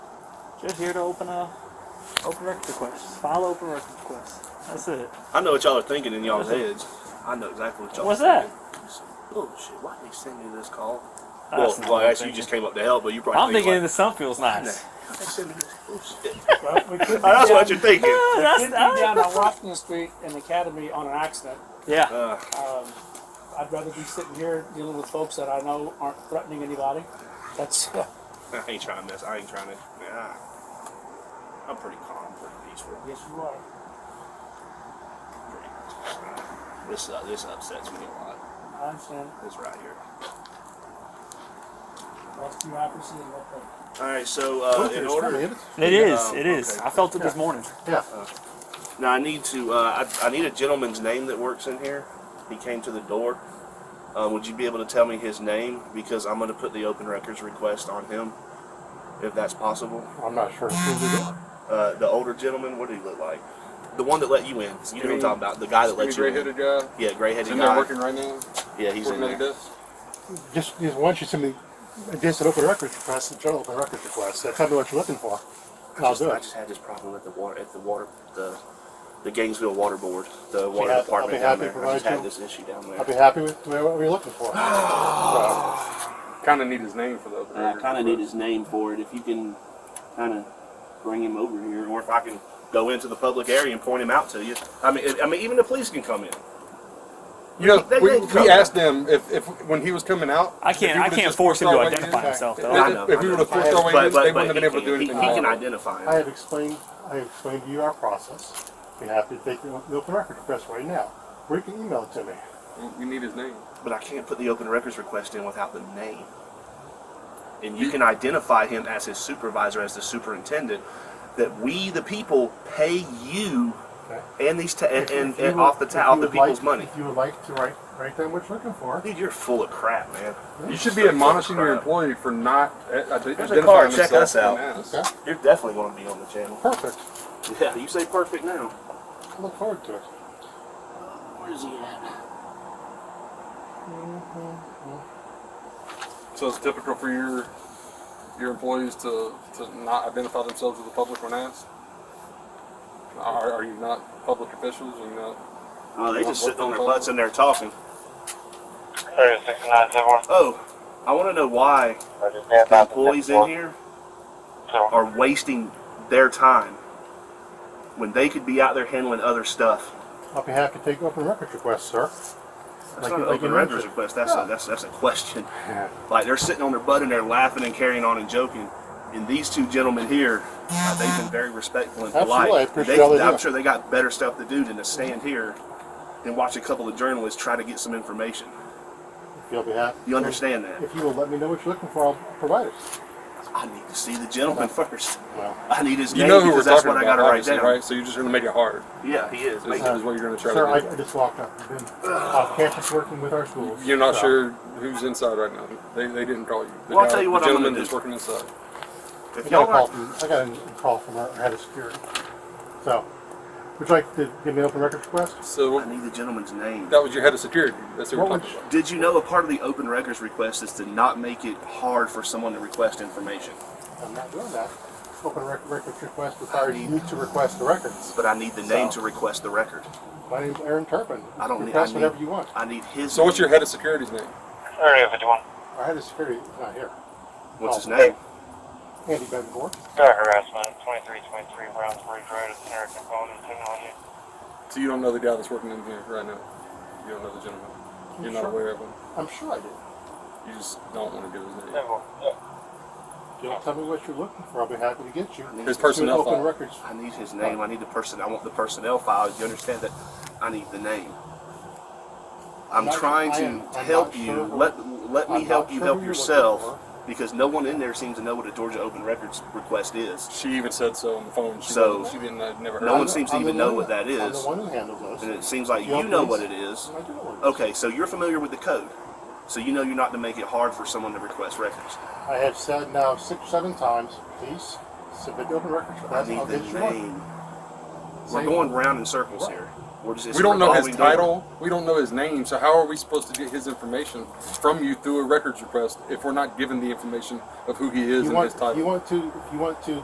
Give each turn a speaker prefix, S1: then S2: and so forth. S1: Just here to open a open record request. File open record request. That's it.
S2: I know what y'all are thinking in y'all's
S1: What's that?
S2: heads. I know exactly what y'all.
S1: What's
S2: are
S1: that?
S2: thinking. that? Bullshit. Oh, Why did they send me this call?
S1: That's not
S2: well,
S1: what
S2: well
S1: I'm
S2: actually, you just came up to help, but you probably.
S1: I'm thinking
S2: like,
S1: the sun feels nice.
S2: "Why'd they send me this bullshit?"
S3: Well, we could be
S2: That's
S3: down,
S2: what you're thinking.
S1: Ah,
S3: we
S1: that's-
S3: could be
S1: ah,
S3: down on Washington Street and Academy on an accident.
S1: yeah.
S2: Uh,
S3: Um, I'd rather be sitting here dealing with folks that I know aren't threatening anybody. That's
S2: I ain't trying this. I ain't trying to. Nah. I'm pretty calm, pretty peaceful.
S3: yes, you are.
S2: Pretty, this uh, this upsets me a lot.
S3: I understand.
S2: This right here.
S3: That's bureaucracy and what they.
S2: All right. So uh, in order.
S1: It
S2: Yeah,
S1: is.
S2: um,
S1: It is.
S2: okay.
S1: I felt it this morning.
S4: Yeah.
S2: Now I need to. Uh, I, I need a gentleman's name that works in here. He came to the door. Uh, would you be able to tell me his name? Because I'm going to put the open records request on him, if that's possible.
S4: I'm not sure.
S2: Uh, the older gentleman. What did he look like? The one that let you in. You know who I'm talking about. The guy that let you
S5: gray
S2: in.
S5: headed guy.
S2: Yeah,
S5: He's
S2: gray-headed
S5: in there
S2: guy.
S5: working right now.
S2: Yeah, he's in
S5: working at
S2: there.
S5: a desk.
S4: Just, just why don't you send me against an open records request, a general open records request. That's probably what you're looking for. I'll do
S2: I
S4: it.
S2: just had this problem at the water at the water the the Gainesville Water Board, the water
S4: happy- I'll be
S2: department down
S4: happy to
S2: there. I just
S4: provide
S2: had
S4: you-
S2: this issue down there.
S4: I'll be happy with the way- what you're looking for. So,
S5: Kind of need his name for the open.
S2: And I kind of need his name for it. If you can kind of bring him over here, or if I can go into the public area and point him out to you. I mean, I mean, even the police can come in.
S5: You know,
S2: They-
S5: we,
S2: they come.
S5: we asked them if, if when he was coming out.
S1: I
S5: if we
S1: can't. I
S5: would've
S1: can't
S5: just
S1: force him
S5: pushed
S1: to
S5: our way
S1: identify
S5: in-
S1: himself
S5: if-
S1: though.
S2: I know,
S5: If
S2: I
S5: we
S2: know.
S5: would have forced our way
S2: But
S5: in, they
S2: but, but
S5: wouldn't have
S2: he,
S5: been able to do
S2: can, he, he
S5: anything.
S2: can
S5: about it.
S2: identify
S4: I
S2: him.
S4: have explained, I have explained to you our process. We have to take the the open records request right now. Or you can email it to me.
S5: We need his name.
S2: But I can't put the open records request in without the name. And you can identify him as his supervisor, as the superintendent. That we, the people, pay you
S4: Okay.
S2: and these ta- and,
S4: If-
S2: and,
S4: if you
S2: and
S4: would-
S2: off the
S4: if
S2: ta-
S4: you
S2: off the
S4: would like-
S2: people's money.
S4: If you would like to write, write down what you're looking for.
S2: Dude, you're full of crap, man.
S5: You should be admonishing your employee for not uh,
S2: There's
S5: ide-
S2: a
S5: identifying
S2: car, check us
S5: themselves
S2: out.
S5: when asked.
S4: Okay,
S2: You're definitely going to be on the channel.
S4: perfect.
S2: Yeah, you say perfect now.
S4: I look forward to it.
S2: Where is he at?
S5: So it's typical for your your employees to, to not identify themselves to the public when asked. Are, are you not public officials? Are you not?
S2: Oh, they just sitting on their butts in there talking.
S6: Thirty six nine seven one.
S2: Oh, I want to know why
S6: I just had
S2: the
S6: about
S2: employees in here are wasting their time when they could be out there handling other stuff.
S4: I'll be happy to take open records requests, sir.
S2: That's
S4: Like
S2: not
S4: you-
S2: an
S4: like you
S2: open records
S4: mentioned.
S2: request. That's
S4: Yeah.
S2: a, that's that's a question.
S4: Yeah.
S2: Like they're sitting on their butt in there laughing and carrying on and joking. And these two gentlemen here, uh, they've been very respectful and polite.
S4: Absolutely, I appreciate
S2: They-
S4: all they
S2: I'm
S4: do.
S2: sure they got better stuff to do than to stand here and watch a couple of journalists try to get some information.
S4: If you'll be happy.
S2: You understand that?
S4: If you will let me know what you're looking for, I'll provide it.
S2: I need to see the gentleman first.
S4: Well,
S2: I need his
S5: You
S2: name
S5: know who we're
S2: because that's
S5: talking
S2: what
S5: about,
S2: I got to write
S5: obviously,
S2: down.
S5: right? So you're just going to make it hard.
S2: Yeah, he is.
S5: Is,
S2: Make-
S5: is what you're going to try
S4: Sir,
S5: to do.
S4: I, I just walked up. I've been off campus working with our schools.
S5: You're not
S4: so-
S5: sure who's inside right now. They, they didn't call you. The
S2: Well, I'll tell you what
S5: The
S2: I'm gonna
S5: gentleman
S2: do.
S5: that's working inside.
S2: if
S4: I
S2: y'all
S4: got a call
S2: are,
S4: from, I got a call from our head of security. So, would you like to give me an open records request?
S2: I
S5: So
S2: need the gentleman's name.
S5: that was your head of security. That's who we're
S4: What
S5: talking about.
S2: Did you know a part of the open records request is to not make it hard for someone to request information?
S4: I'm not doing that. Open rec- records request requires you to request the records.
S2: But I need the name
S4: So-
S2: to request the record.
S4: My name's Aaron Turpin.
S2: I don't need.
S4: Request
S2: I need
S4: whatever you want.
S2: I need his.
S5: So what's your
S2: name.
S5: head of security's name?
S6: Area fifty one.
S4: Our head of security is not here.
S2: What's his
S4: Oh.
S2: name?
S4: Andy Betancourt.
S6: Car harassment, twenty three twenty three Browns Bridge Road, it's American phone and technology.
S5: So you don't know the guy that's working in here right now. You don't know the gentleman. You're not
S4: sure?
S5: aware of him.
S4: I'm sure I did.
S5: You just don't want to give his name.
S6: Simple.
S4: If you'll tell me what you're looking for, I'll be happy to get you.
S2: I need
S5: His
S2: his-
S5: personnel
S4: Open
S5: file.
S4: records.
S2: I need his name. I need the person. I want the personnel file. You understand that? I need the name. I'm
S4: Not-
S2: trying
S4: I
S2: to
S4: am- I'm not
S2: help you.
S4: sure who-
S2: let let me
S4: I'm
S2: help
S4: not
S2: you
S4: sure
S2: help
S4: who you're looking
S2: yourself
S4: for.
S2: because no one in there seems to know what a Georgia open records request is.
S5: She even said so on the phone. She
S2: So-
S5: wasn't- she didn't. I'd never heard.
S2: No
S5: of
S2: one
S5: it.
S2: seems to
S4: I'm the
S2: even know
S4: one-
S2: what that
S4: I'm
S2: is.
S4: the one who handles
S2: And
S4: those.
S2: it seems like
S4: Yeah,
S2: you know
S4: please.
S2: what it is.
S4: I do know what it is.
S2: Okay, so you're familiar with the code. So you know you're not to make it hard for someone to request records.
S4: I have said now six, seven times, please submit the open records
S2: I
S4: request.
S2: need
S4: I'll
S2: the
S4: get you one.
S2: name. We're
S4: Same.
S2: going round in circles here. We're just, it's
S5: We don't know his
S2: revolving door.
S5: title. We don't know his name. So how are we supposed to get his information from you through a records request if we're not given the information of who he is
S4: You
S5: and his
S4: want,
S5: title?
S4: you want to, if you want to